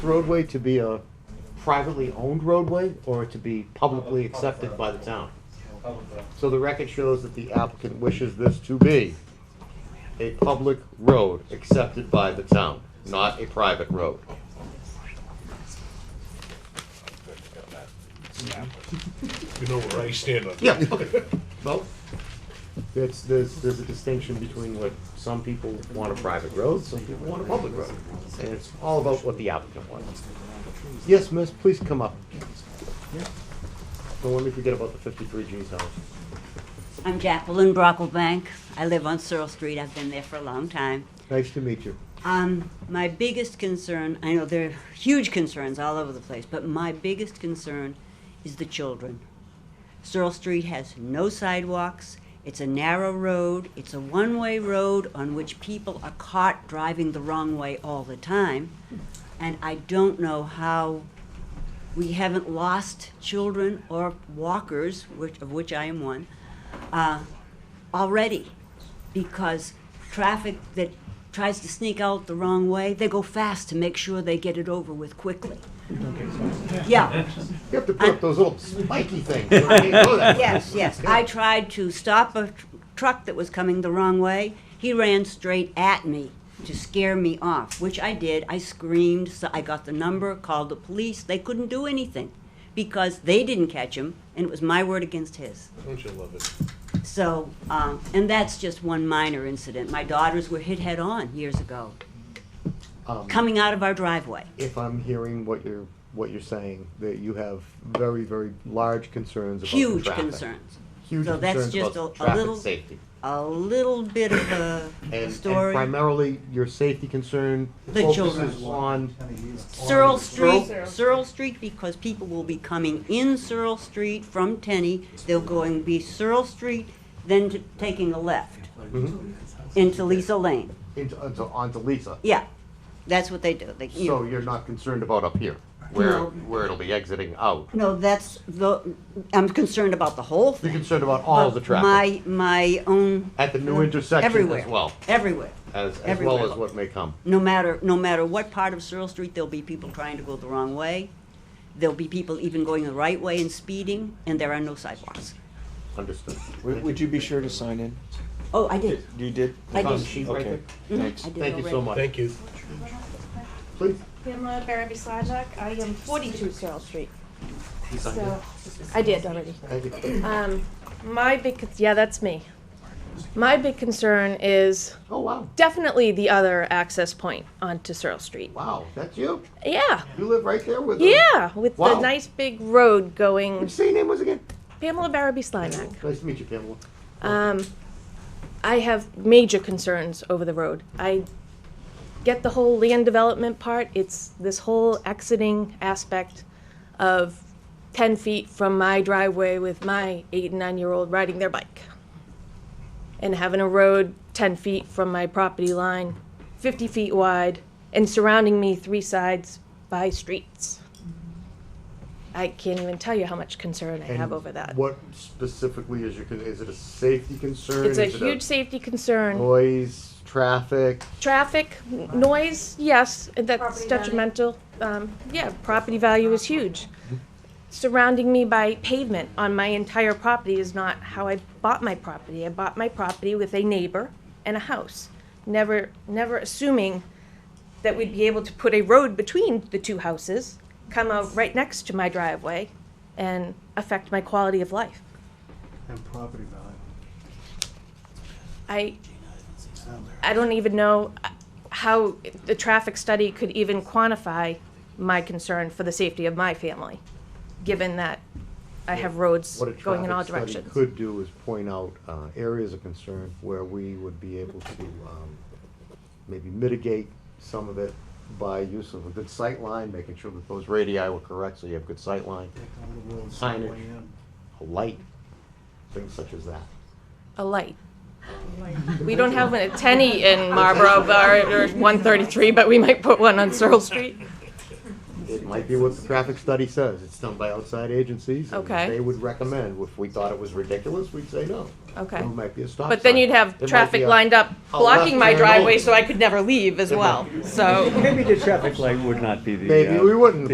roadway to be a privately owned roadway or to be publicly accepted by the town? So the record shows that the applicant wishes this to be a public road accepted by the town, not a private road. You know where I stand on that. Yeah, okay. Well, it's, there's, there's a distinction between what some people want a private road, some people want a public road. And it's all about what the applicant wants. Yes, miss, please come up. Don't let me forget about the fifty-three G's house. I'm Jacqueline Brocklebank. I live on Searle Street. I've been there for a long time. Nice to meet you. Um, my biggest concern, I know there are huge concerns all over the place, but my biggest concern is the children. Searle Street has no sidewalks. It's a narrow road. It's a one way road on which people are caught driving the wrong way all the time. And I don't know how we haven't lost children or walkers, which, of which I am one, uh, already because traffic that tries to sneak out the wrong way, they go fast to make sure they get it over with quickly. Yeah, You have to put up those little spiky things. so I can't go that way. yes, yes. I tried to stop a tr- truck that was coming the wrong way. He ran straight at me to scare me off, which I did. I screamed, so I got the number, called the police. They couldn't do anything because they didn't catch him, and it was my word against his. Don't you love it? So, um, and that's just one minor incident. My daughters were hit head on years ago, Um, coming out of our driveway. If I'm hearing what you're, what you're saying, that you have very, very large concerns about the Huge traffic. concerns. Huge So that's concerns just about a- a traffic little- safety. A little bit of a, a And, and story. primarily, your safety concern The focuses children. on, Searle Street, Searle Street, because people will be coming in Searle Street from Tenny. They'll going be Searle Street, then t- taking a left Mm-hmm. into Lisa Lane. into, onto, onto Lisa. Yeah, that's what they do. They, you know. So you're not concerned about up here, where, No. where it'll be exiting out. No, that's the, I'm concerned about the You're whole thing. concerned about all but the traffic My, my own. at the new intersection everywhere, as well, Everywhere. as, as well everywhere. as what may come. No matter, no matter what part of Searle Street, there'll be people trying to go the wrong way. There'll be people even going the right way and speeding, and there are no sidewalks. Understood. Would, would you be sure to sign in? Oh, I did. You did? I did. Um, sheet right Okay, there. thanks. I did Thank you so already. much. Thank you. Please. Pamela Barabee Slajak, I am 42 Searle Street. So, I did already. Thank you. Um, my big, con- yeah, that's me. My big concern is Oh, wow, definitely the other access point onto Searle Street. wow, that's you? Yeah, You live right there with? them? yeah, with Wow. the nice big What'd road you going. say your name was again? Pamela Barabee Slajak. Nice to meet you, Pamela. Um, I have major concerns over the road. I get the whole land development part. It's this whole exiting aspect of 10 feet from my driveway with my eight and nine year old riding their bike. And having a road 10 feet from my property line, 50 feet wide, and surrounding me three sides by streets. I can't even tell you how much concern I have And over that. What specifically is your, con- is it a safety concern? It's a Is it huge safety concern. Noise, traffic, Traffic, n- noise, yes, that's detrimental. Um, Yeah, property value is huge. Surrounding me by pavement on my entire property is not how I bought my property. I bought my property with a neighbor and a house, never, never assuming that we'd be able to put a road between the two houses, come out right next to my driveway, and affect my quality of life. And property value. I, I don't even know how the traffic study could even quantify my concern for the safety of my family, given that I have roads What a going in all traffic study directions. could do is point out uh, areas of concern where we would be able to um, maybe mitigate some of it by use of a good sight line, making sure that those radii were correct, so you have good sight line, Take all the roads Signage. way in. a light, things such as that. A light. We don't have a tenny in Marlboro or or 133, but we might put one on Searle Street. It might be what the traffic study says. It's done by outside agencies. and Okay. They would recommend. If we thought it was ridiculous, we'd say no. Okay. It might be a stop sign. But then you'd It have might be traffic a- lined up a blocking left my turn driveway only. so I could never leave as It might- well. So. Maybe the traffic light would not be the. Maybe uh, we wouldn't.